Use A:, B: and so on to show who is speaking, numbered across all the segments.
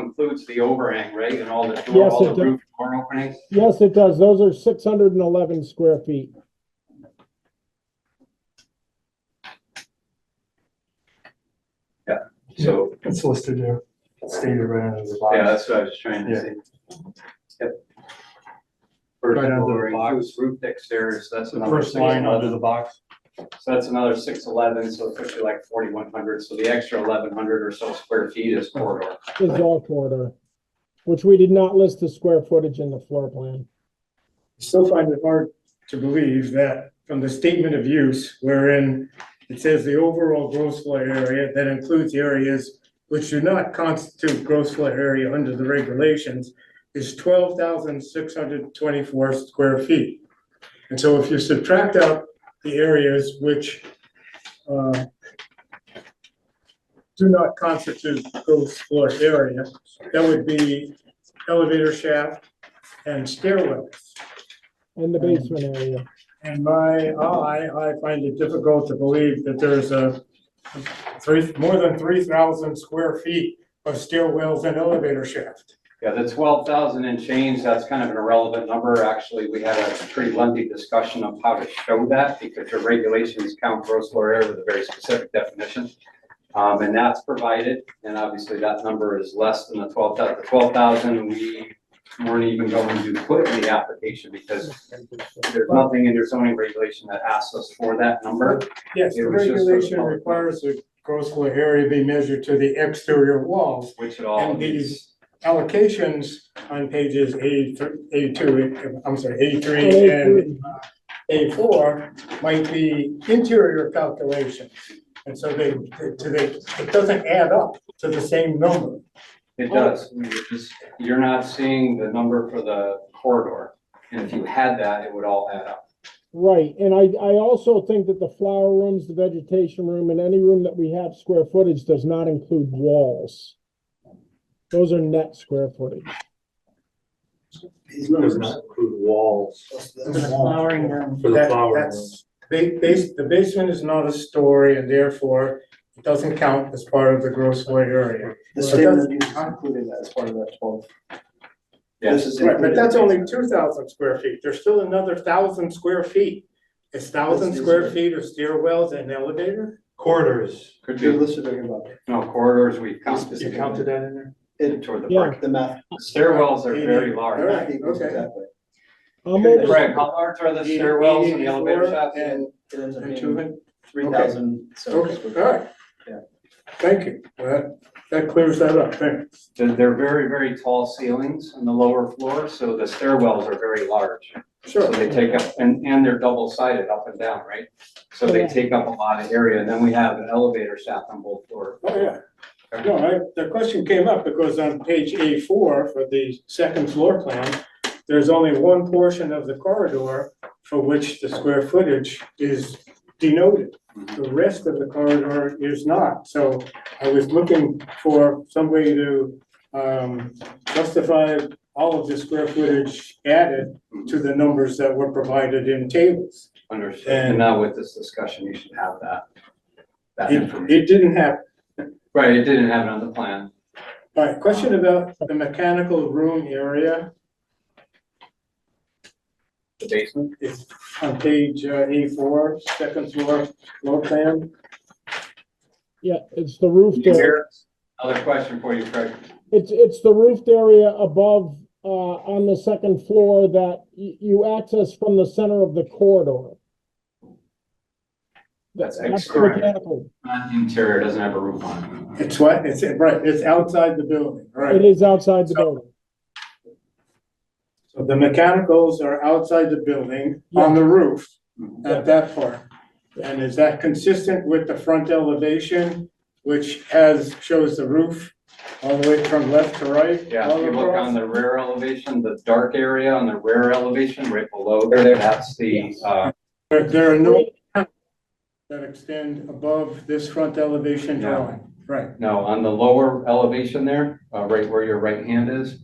A: includes the overhang, right, and all the door,
B: Yes,
A: all
B: it
A: the
B: does.
A: roof door openings?
B: Yes, it does. Those are six hundred and eleven square feet.
A: So,
C: It's listed there, It's stated right under the
A: yeah,
C: box.
A: that's what I was trying to
C: Yeah.
A: say. Yep. First
C: Right under the
A: floor
C: box.
A: includes roof deck stairs, that's
C: The
A: another.
C: first line
A: 611.
C: under the box.
A: So that's another six eleven, so it puts you like forty-one hundred, so the extra eleven hundred or so square feet is corridor.
B: is all corridor, which we did not list the square footage in the floor plan.
D: I still find it hard to believe that from the statement of use wherein it says the overall gross floor area that includes areas which do not constitute gross floor area under the regulations is twelve thousand six hundred twenty-four square feet. And so if you subtract out the areas which uh, do not constitute gross floor area, that would be elevator shaft and stairwells.
B: And the basement area,
D: And my, oh, I, I find it difficult to believe that there's a three, more than three thousand square feet of stairwells and elevator shaft.
A: Yeah, the twelve thousand and change, that's kind of an irrelevant number. Actually, we had a pretty lengthy discussion of how to show that because your regulations count gross floor area with a very specific definition. Um, and that's provided, and obviously that number is less than the twelve thousand. The twelve thousand, we weren't even going to put in the application because there's nothing in your zoning regulation that asks us for that number.
D: Yes, the
A: It was just for the
D: regulation
A: public.
D: requires the gross floor area be measured to the exterior walls.
A: which it all
D: And
A: is.
D: these- Allocations on pages 83 82, I'm sorry, eighty-three and
B: 83.
D: A4 might be interior calculations. And so they, to the, it doesn't add up to the same number.
A: It does, I mean, you're just, you're not seeing the number for the corridor, and if you had that, it would all add up.
B: right, and I, I also think that the flower rooms, the vegetation room, and any room that we have square footage does not include walls. Those are net square footage.
E: These numbers not include walls
F: For the flowering room.
E: for the
D: That-
E: flower room.
D: that's- Ba- base, the basement is not a story and therefore it doesn't count as part of the gross floor area.
F: The
D: Well,
F: statement
D: that's-
F: of use is included as part of that twelve.
A: Yes,
F: This is
D: Right, but
F: included.
D: that's only two thousand square feet. There's still another thousand square feet. It's thousand square feet of stairwells and elevator?
C: Corridors,
A: could
F: You're
A: be,
F: listed talking about
A: no, corridors, we count
F: This
A: this
F: is-
C: you counted that in there?
F: it,
A: toward the
B: Yeah.
A: brick.
F: the math.
A: Stairwells are very
F: the
A: large.
F: math equals
D: okay.
F: exactly.
B: I'm over,
A: Greg, how large are the stairwells and the elevator shafts?
F: And it ends up
D: And
F: being
D: two,
F: three thousand, so.
D: okay, alright.
F: Yeah.
D: Thank you. Well, That, that clears that up, thanks.
A: They're, they're very, very tall ceilings on the lower floor, so the stairwells are very large. So
D: Sure.
A: they take up, and, and they're double sided up and down, right? So they
B: Yeah.
A: take up a lot of area, and then we have an elevator shaft on both floors.
D: Oh, yeah. No, I, the question came up because on page A four for the second floor plan, there's only one portion of the corridor for which the square footage is denoted. The rest of the corridor is not, so I was looking for some way to um justify all of the square footage added to the numbers that were provided in tables.
A: Understood, and
D: And-
A: now with this discussion, you should have that, that
D: It
A: information.
D: it didn't happen.
A: Right, it didn't have it on the plan.
D: All right, question about the mechanical room area.
A: The basement?
D: It's on page A four, second floor, floor plan.
B: yeah, it's the roofed area,
A: Another question for you, Craig.
B: it's, it's the roofed area above, uh, on the second floor that y- you access from the center of the corridor.
A: That's
B: That's
A: correct.
B: mechanical.
A: Not interior, it doesn't have a roof on it.
D: It's what, it's, right, it's outside the building,
B: It
D: right?
B: is outside the
D: So-
B: building.
D: So the mechanicals are outside the building, on the roof, at that part. And is that consistent with the front elevation, which has, shows the roof all the way from left to right?
A: Yeah,
D: all
A: if you look
D: across?
A: on the rear elevation, the dark area on the rear elevation, right below there, that's the, uh,
D: There- There are no that extend above this front elevation
A: No.
D: drawing, right?
A: no, on the lower elevation there, uh, right where your right hand is,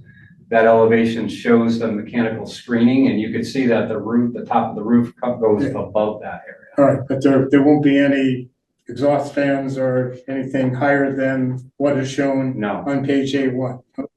A: that elevation shows the mechanical screening, and you can see that the roof, the top of the roof co- goes above that area.
D: All right, but there, there won't be any exhaust fans or anything higher than what is shown
A: No.
D: on page A one?